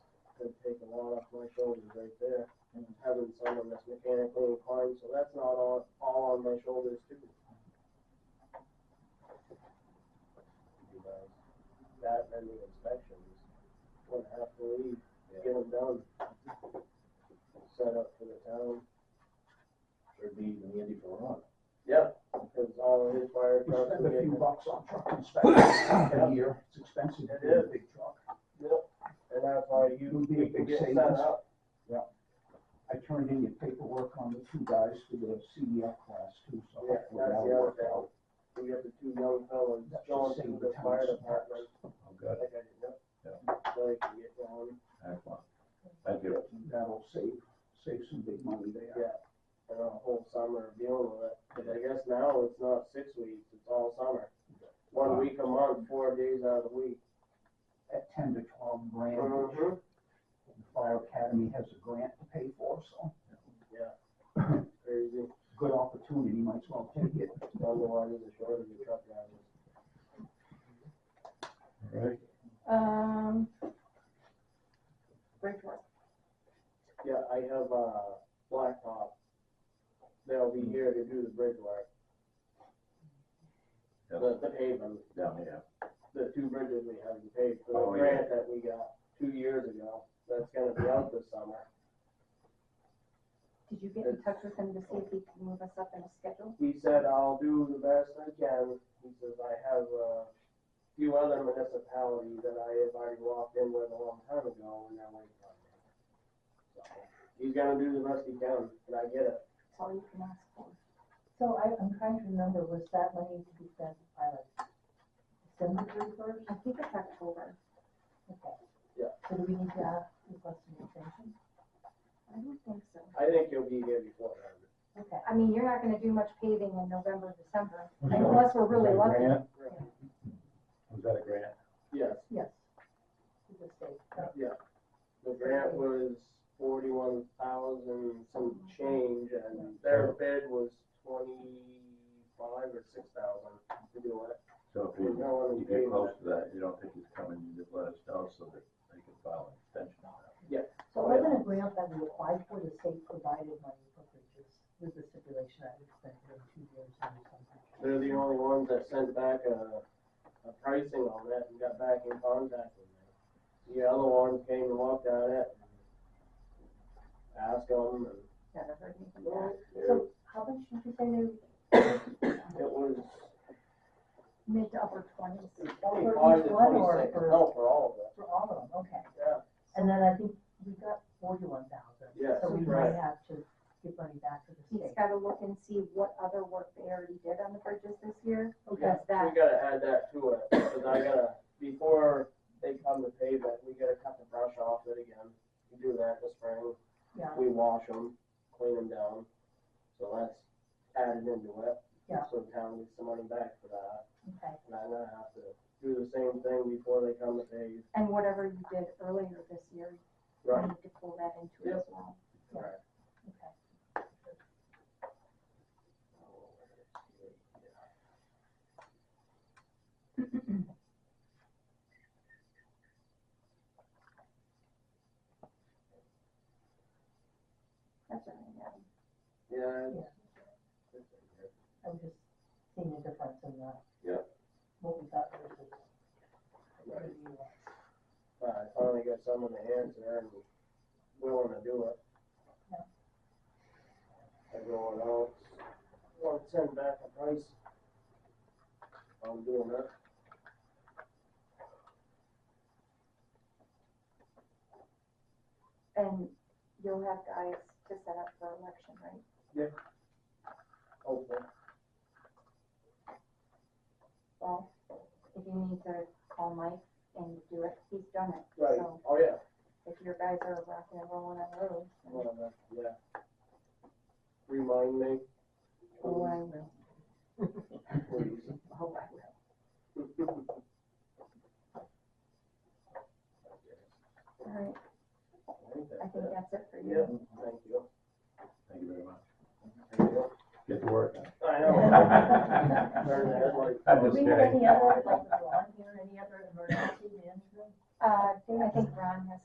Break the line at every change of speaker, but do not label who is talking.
would take a lot off my shoulders right there. And having someone that's mechanically inclined, so that's not all, all on my shoulders too. You guys, That and the inspections, would have to leave, get them done. Set up for the town.
There'd be even Andy Ferrara.
Yep. Because all his fire
We
trucks.
spend
would
a
get-
few bucks on truck inspection a year, it's expensive to do a big truck.
And that's why
It
you
would be a big
get set
savings.
up.
I turned in your paperwork on the two guys for the CDL class too, so
Yeah,
hopefully
that's
that'll
the other
work
thing.
out.
We got the two young fellas
That should
going
save
through the
the town
fire
some
department.
Oh,
I
good,
think I did that. So they can get going.
excellent. Thank you.
That'll save, save some big money there.
Yeah. And a whole summer of dealing with it. Cause I guess now it's not six weeks, it's all summer. One
Wow.
week a month, four days out of the week.
At ten to twelve grand, which
Mm-hmm.
Mhm.
the fire academy has a grant to pay for, so
Yeah. Crazy.
good opportunity, might as well take it.
Wonder why there's a shortage of truck drivers.
All right.
Um. Bridgeport.
Yeah, I have, uh, Blacktop. They'll be here to do the bridge work,
Yeah,
the, the paving.
Down here.
the two bridges we haven't paid for
Oh,
the
yeah.
grant that we got two years ago. That's gonna be out this summer.
Did you get in touch with him to see if he can move us up in a schedule?
He said, I'll do the best I can. He says, I have a few other municipalities that I have already walked in with a long time ago and they're waiting on me. So, He's gonna do the best he can, and I get it.
That's all you can ask for.
So I, I'm trying to remember, was that money to be spent by like December thirty first?
I think it's October.
Okay.
Yeah.
So do we need to ask, request an extension?
I don't think so.
I think he'll be here before then.
Okay.
I mean, you're not gonna do much paving in November, December,
Was that-
unless we're
was that
really
a
lucky.
grant? Was that a grant?
Yes,
Yes. To the state.
the grant was forty-one thousand some change and their bid was twenty-five or six thousand to do it.
So if
We're
you,
going
you
to pay
get close to that, you don't think he's coming, you just let us know so that they can file an extension on that.
So wasn't a grant that we applied for, the state provided money for bridges with the stipulation that we spent it in two years or something?
They're the only ones that sent back a, a pricing on that and got back in contact with me. The other ones came and looked at it and asked them and.
Never heard anything back.
It
So how much did you say they,
was
Mid to upper twenties.
twenty-five to
one or
twenty-six,
for-
no, for all of it.
for all of them, okay.
Yeah.
And then I think we got forty-one thousand.
Yes,
So we
right.
might have to give money back to the
He's
state.
gotta look and see what other work they already did on the bridges this year,
Okay.
because that,
We gotta add that to it, cause I gotta, before they come to pave it, we gotta cut the brush off it again. We do that this spring,
Yeah.
we wash them, clean them down, so that's added into it.
Yeah.
So the town gets some money back for that.
Okay,
And I'm gonna have to do the same thing before they come to pay.
and whatever you did earlier this year, you need to pull that into it as well.
Right.
okay.
That's what I have.
Yeah.
I was just seeing the difference in the.
Yep.
What we got versus. what
Right.
we want.
But I finally got someone to answer and willing to do it.
Yeah.
Everyone else, want to send back a price. I'm doing that.
And you'll have guys to set up for election, right?
Hopefully.
Well, if you need to call Mike and do it, he's done it.
Right,
So
oh yeah.
if your guys are rocking and rolling on those, then
Whatever, yeah. Remind me.
oh, I will.
Please.
Hope I will. All right, I think that's it for
Yeah,
you.
thank you.
Thank you very much.
Thank you.
Get to work.
I
I'm
Turn the headlight.
Do
just
we have
kidding.
any other, like, on here, any other emergency management?
Uh, I think Ron has